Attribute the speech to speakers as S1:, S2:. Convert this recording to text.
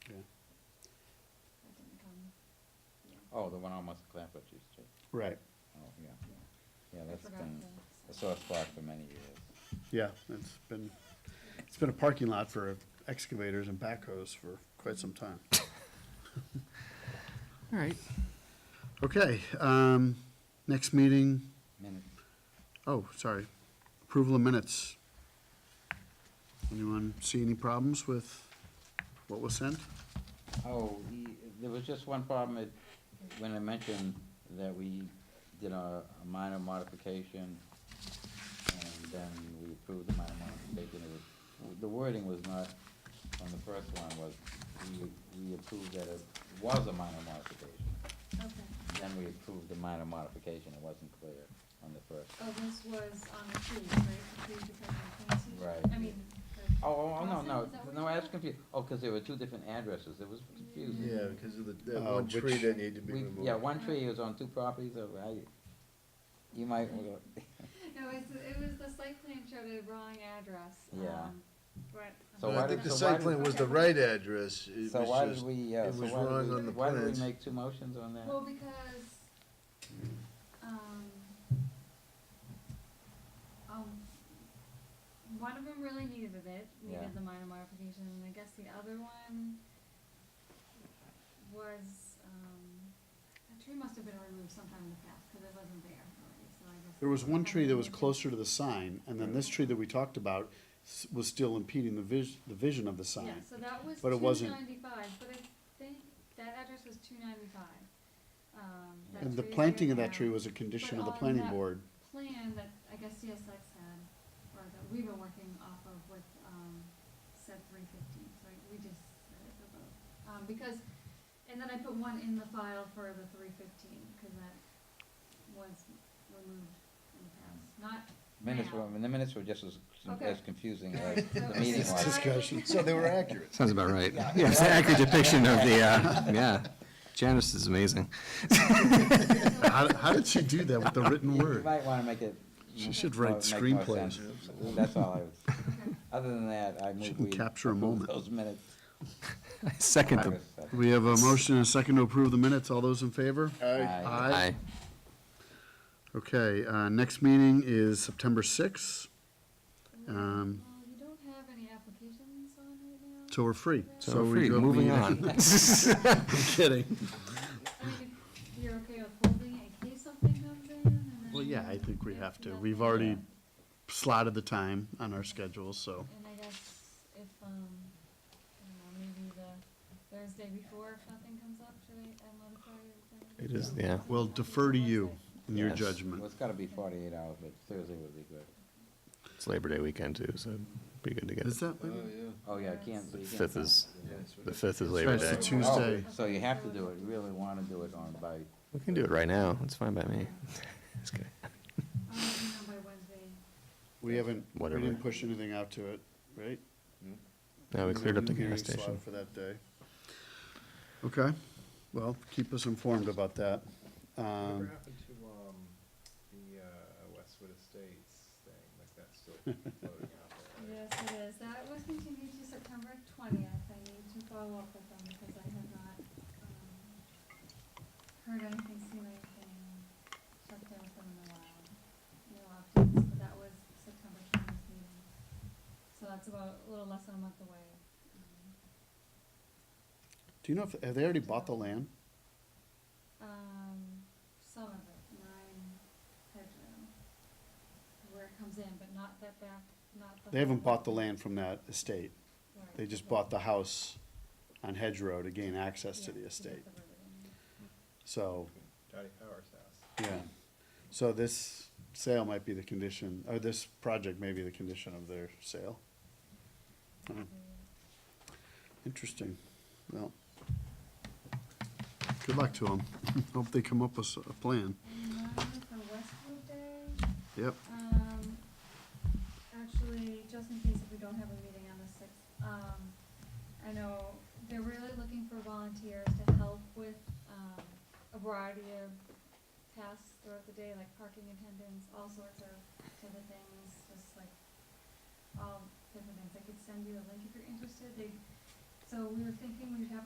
S1: Oh, the one almost Clampett used to,
S2: Right,
S1: oh, yeah, yeah, that's
S3: forgot
S1: been
S3: the-
S1: a sore spot for many years.
S2: yeah, it's been, it's been a parking lot for excavators and backhoes for quite some time. All right. Okay, um, next meeting,
S1: Minute,
S2: oh, sorry, approval of minutes. Anyone see any problems with what was sent?
S1: oh, he- there was just one problem, it, when I mentioned that we did a, a minor modification, and then we approved the minor modification, it was, the wording was not, on the first one was, we, we approved that it was a minor modification.
S3: Okay.
S1: Then we approved the minor modification, it wasn't clear on the first.
S3: Oh, this was on the trees, right? The trees becoming a plantation?
S1: Right.
S3: I mean. the-
S1: Oh, oh, oh, no,
S3: Crossing,
S1: no,
S3: is that what
S1: no,
S3: you
S1: I was
S3: said?
S1: confused, oh, because there were two different addresses, it was confusing.
S4: Yeah, because of the, that
S2: Uh,
S4: one
S2: which-
S4: tree that needed to be
S1: We,
S4: removed.
S1: yeah, one tree was on two properties, so I, you might,
S3: No, it's, it was the site plan showed a wrong address.
S1: Yeah.
S3: um, But.
S1: So
S4: But
S1: why
S4: I think
S1: did-
S4: the
S1: so why
S4: site
S1: did-
S4: plan was the right address, it
S1: so why
S4: was
S1: did
S4: just,
S1: we, uh,
S4: it
S1: so
S4: was
S1: why did
S4: wrong
S1: we,
S4: on the
S1: why did
S4: plans.
S1: we make two motions on that?
S3: Well, because, um, um, one of them really needed it,
S1: Yeah.
S3: needed the minor modification, and I guess the other one was, um, a tree must have been removed sometime in the past, cause it wasn't there already, so I guess.
S2: There was one tree that was
S3: Okay.
S2: closer to the sign, and then this tree that we talked about s- was still impeding the vis- the vision of the
S3: Yeah,
S2: sign.
S3: so that was
S2: but it
S3: two
S2: wasn't-
S3: ninety-five, but I think that address was two ninety-five. Um, that
S2: And the
S3: tree is
S2: planting
S3: there
S2: of that
S3: now.
S2: tree was a condition of the
S3: on
S2: planning
S3: that-
S2: board.
S3: plan that I guess CSX had, or that we've been working off of with, um, said three fifteen, so I- we just said it for both. Um, because, and then I put one in the file for the three fifteen, cause that was removed in the past, not
S1: Minutes
S3: now.
S1: were, the minutes were just as,
S3: Okay.
S1: as confusing
S3: All
S1: as
S3: right, so
S1: the meeting
S3: it's
S1: was.
S3: not-
S2: discussion.
S4: so they were accurate.
S5: Sounds about right. Yeah, it's an accurate depiction of the, uh, yeah. Janice is amazing.
S2: How, how did she do that with the written
S1: You might wanna make it.
S2: She should
S1: more-
S2: write
S1: make more
S2: screenplays.
S1: sense. That's all I was,
S3: Okay.
S1: other than that,
S2: She
S1: I moved
S2: can
S1: we
S2: capture a
S1: approve
S2: moment.
S1: those minutes.
S5: I Second them.
S1: August second.
S2: We have a motion and a second to approve the minutes. All those in favor?
S1: Aye.
S5: Aye.
S2: Okay, uh, next meeting is September sixth, Um,
S3: Well, you don't have any applications on right now?
S2: so we're free.
S5: So
S2: we
S5: we're free,
S2: don't
S5: moving
S2: need-
S5: on.
S2: I'm kidding.
S3: I mean, if you're okay with holding it in case something comes in, and then.
S2: Well, yeah, I think we
S3: if
S2: have to.
S3: nothing-
S2: We've already slotted the time on our schedule, so.
S3: And I guess if, um, I don't know, maybe the Thursday before, if nothing comes up, should I, I notify you? then?
S2: It is-
S5: Yeah.
S2: We'll defer to you in your
S5: Yes.
S1: Well,
S2: judgment.
S1: it's gotta be forty-eight hours, but Thursday would be good.
S5: It's Labor Day weekend too, so it'd be good to get
S2: Is
S5: it.
S2: that,
S4: Oh, yeah.
S1: Oh, yeah, I can't.
S5: The
S1: you can't
S5: fifth
S1: count.
S5: is,
S4: Yeah, that's what
S5: the
S4: it-
S5: fifth
S2: That's
S5: is Labor
S2: right, it's a
S5: Day.
S2: Tuesday.
S1: Oh, So you have to do it, you really wanna do it on by,
S5: We can do it right now. It's fine by me. Just kidding.
S3: I'll let you know by Wednesday.
S2: we haven't, we
S5: Whatever.
S2: didn't push anything out to it, right?
S5: No, we cleared up the
S2: Hearing
S5: gas
S2: slot
S5: station.
S2: For that day. Okay, well, keep us informed about that. Um,
S6: Whatever happened to, um, the, uh, Westwood Estates thing, like that's still floating out there?
S3: Yes, it is. That was continued to September twentieth. I need to follow up with them because I have not, um, heard anything, seen anything, checked in with them in a while. No updates, but that was September twentieth meeting. So that's about a little less than a month away. Um,
S2: Do you know if, have they already bought the land?
S3: Um, some of it, nine bedroom, um, where it comes in, but not that back, not the.
S2: They haven't bought the land from that estate.
S3: Right,
S2: They just
S3: yeah.
S2: bought the house on Hedge Row to gain access to
S3: Yeah,
S2: the
S3: get
S2: estate.
S3: the river in.
S2: So,
S6: Dottie Howard's house.
S2: yeah. So this sale might be the condition, or this project may be the condition of their sale. Hmm, Interesting. Well, good luck to them. Hope they come up with s- a plan.
S3: And then for Westwood Day,
S2: Yep.
S3: um, actually, just in case if we don't have a meeting on the sixth, um, I know they're really looking for volunteers to help with, um, a variety of tasks throughout the day, like parking attendants, all sorts of different things, just like all different things. I could send you a link if you're interested. They, so we were thinking we'd have